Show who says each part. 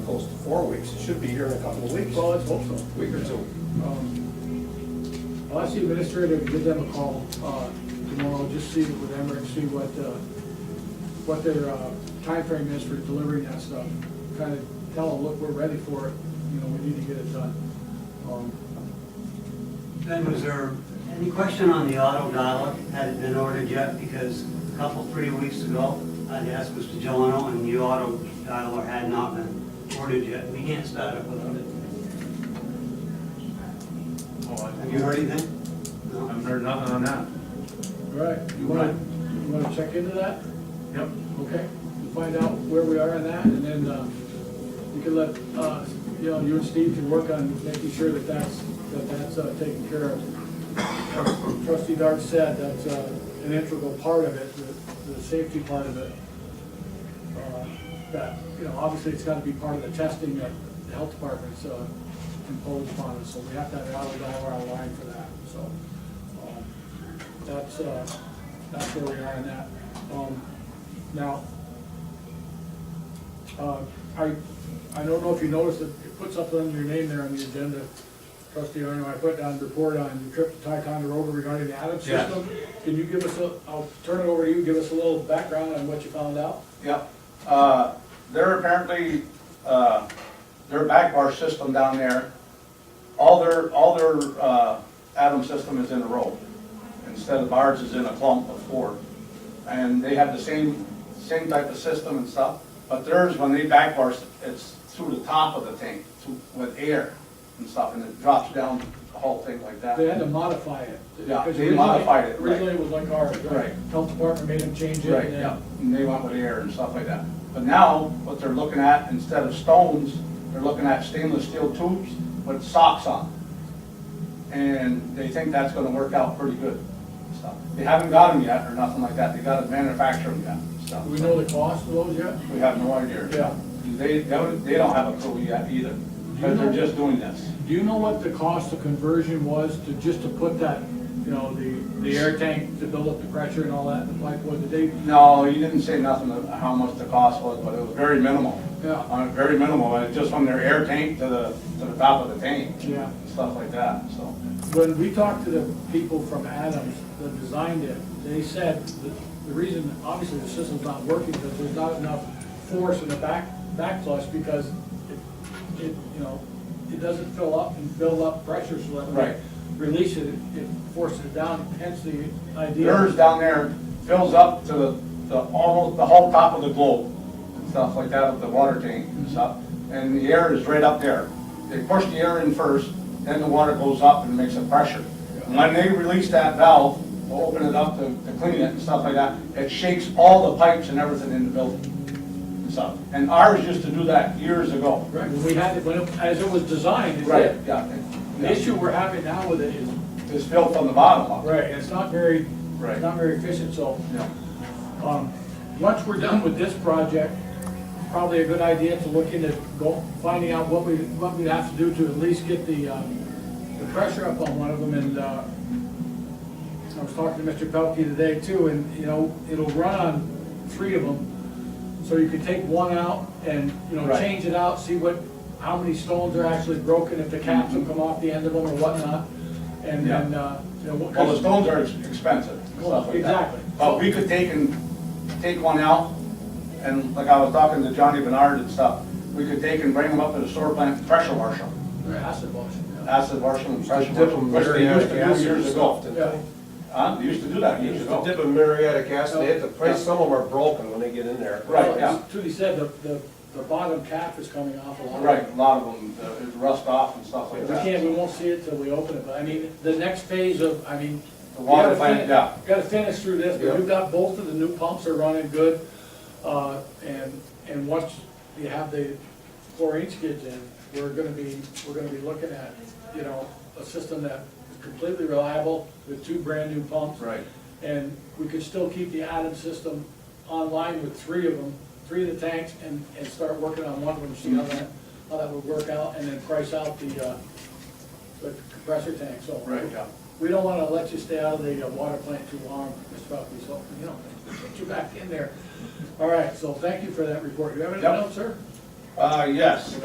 Speaker 1: almost four weeks. It should be here in a couple of weeks,
Speaker 2: Well, let's hope so.
Speaker 1: week or two.
Speaker 2: Um, I'll ask the administrator to give them a call uh, tomorrow, just see with them and see what, uh, what their uh, timeframe is for delivering that stuff. Kind of tell them, look, we're ready for it, you know, we need to get it done. Um,
Speaker 3: Ben, was there any question on the auto dialer? Had it been ordered yet? Because a couple, three weeks ago, I asked Mr. Jelena, and the auto dialer had not been ordered yet. We can't start it without it.
Speaker 4: Oh, I-
Speaker 3: Have you heard anything? No?
Speaker 4: I've heard nothing on that.
Speaker 2: All right, you want to, you want to check into that?
Speaker 4: Yep.
Speaker 2: Okay, we'll find out where we are on that, and then uh, you can let, uh, you know, you and Steve can work on making sure that that's, that that's uh, taken care of. Trustee Dart said that's uh, an integral part of it, the, the safety part of it. Uh, That, you know, obviously it's got to be part of the testing that the health department's uh, imposed upon us, so we have to have it out of the our line for that, so. um, That's, uh, that's where we are on that. Um, Now, uh, I, I don't know if you noticed that you put something under your name there on the agenda. Trustee Arno, I put down report on your trip to Ticonderoga regarding the Adams
Speaker 4: Yeah.
Speaker 2: system. Can you give us a, I'll turn it over to you, give us a little background on what you found out?
Speaker 5: Yep. Uh, They're apparently, uh, their back bar system down there, all their, all their uh, atom system is in a row. Instead of ours is in a clump of four. And they have the same, same type of system and stuff, but theirs, when they back bar, it's through the top of the tank through- with air and stuff, and it drops down the whole thing like that.
Speaker 2: They had to modify it.
Speaker 5: Yeah,
Speaker 2: because
Speaker 5: they
Speaker 2: originally-
Speaker 5: modified it, right.
Speaker 2: Originally it was like ours, right?
Speaker 5: Right.
Speaker 2: Health department made them change it.
Speaker 5: Right,
Speaker 2: and-
Speaker 5: yeah, and they went with air and stuff like that. But now, what they're looking at, instead of stones, they're looking at stainless steel tubes with socks on. And they think that's gonna work out pretty good, and stuff. They haven't got them yet or nothing like that, they gotta manufacture them yet, and stuff.
Speaker 2: Do we know the cost of those yet?
Speaker 5: We have no idea.
Speaker 2: Yeah.
Speaker 5: They, they don't they don't have a clue yet either, because they're just doing this.
Speaker 2: Do you know what the cost of conversion was to, just to put that, you know, the, the air tank to build up the pressure and all that, the pipeline, did they,
Speaker 5: No, he didn't say nothing of how much the cost was, but it was very minimal.
Speaker 2: Yeah.
Speaker 5: Uh, Very minimal, and it's just from their air tank to the, to the top of the tank.
Speaker 2: Yeah.
Speaker 5: and Stuff like that, so.
Speaker 2: when we talked to the people from Adams that designed it, they said that the reason, obviously, the system's not working because there's not enough force in the back, back flush because it, it, you know, it doesn't fill up and build up pressure so that when
Speaker 5: Right.
Speaker 2: we release it, it- it forces it down, hence the idea.
Speaker 5: Yours down there fills up to the, the, almost the whole top of the globe and stuff like that of the water tank and stuff. And the air is right up there. They push the air in first, then the water goes up and makes a pressure. And When they release that valve, to open it up to, to clean it and stuff like that, it shakes all the pipes and everything in the building and stuff. And ours used to do that years ago.
Speaker 2: Right, when we had it, when, it- as it was designed, it
Speaker 5: Right,
Speaker 2: did.
Speaker 5: yeah.
Speaker 2: The issue we're having now with it is,
Speaker 5: It's built from the bottom up.
Speaker 2: right, it's not very,
Speaker 5: Right.
Speaker 2: it's not very efficient, so,
Speaker 5: Yeah.
Speaker 2: um, once we're done with this project, probably a good idea to look into go, finding out what we, what we'd have to do to at least get the, uh, the pressure up on one of them, and, uh, I was talking to Mr. Pelkey today too, and, you know, it'll run on three of them, so you can take one out and, you know,
Speaker 5: Right.
Speaker 2: change it out, see what, how many stones are actually broken, if the caps will come off the end of them or whatnot, and
Speaker 5: Yeah.
Speaker 2: then, uh, you know, what.
Speaker 5: Well, the stones are ex- expensive, and stuff like that.
Speaker 2: Exactly.
Speaker 5: But we could take and, take one out, and like I was talking to Johnny Bernard and stuff, we could take and bring them up to the sewer plant, pressure wash them,
Speaker 2: Or acid wash, yeah.
Speaker 5: acid wash them, pressure
Speaker 1: dip
Speaker 5: wash them,
Speaker 1: them
Speaker 5: which they
Speaker 1: very
Speaker 5: used to do
Speaker 1: acid
Speaker 5: years
Speaker 1: and
Speaker 5: ago.
Speaker 1: stuff.
Speaker 2: Yeah.
Speaker 5: Huh? They used to do that
Speaker 1: They
Speaker 5: years
Speaker 1: used to
Speaker 5: ago.
Speaker 1: dip in muriatic acid, they had to place, some of them are broken when they get in there.
Speaker 5: Right,
Speaker 2: Well,
Speaker 5: yeah.
Speaker 2: as Trudy said, the, the, the bottom cap is coming off a lot.
Speaker 5: Right, a lot of them, uh, it rust off and stuff
Speaker 2: We
Speaker 5: like
Speaker 2: can't,
Speaker 5: that.
Speaker 2: we won't see it till we open it, but I mean, the next phase of, I mean.
Speaker 5: The water
Speaker 2: we gotta
Speaker 5: plant,
Speaker 2: fin-
Speaker 5: yeah.
Speaker 2: Gotta finish through this, but
Speaker 1: Yeah.
Speaker 2: we've got both of the new pumps are running good, uh, and, and once you have the chlorine skids in, we're gonna be, we're gonna be looking at, you know, a system that is completely reliable with two brand-new pumps.
Speaker 5: Right.
Speaker 2: And we could still keep the Adam system online with three of them, three of the tanks, and, and start working on one of them, see how that, how that would work out, and then price out the, uh, the compressor tank, so.
Speaker 5: Right, yeah.
Speaker 2: We don't wanna let you stay out of the uh, water plant too long, Mr. Buckley, so, you know, get you back in there. All right, so thank you for that report. You have anything
Speaker 5: Yep.
Speaker 2: else, sir?
Speaker 5: Uh, yes,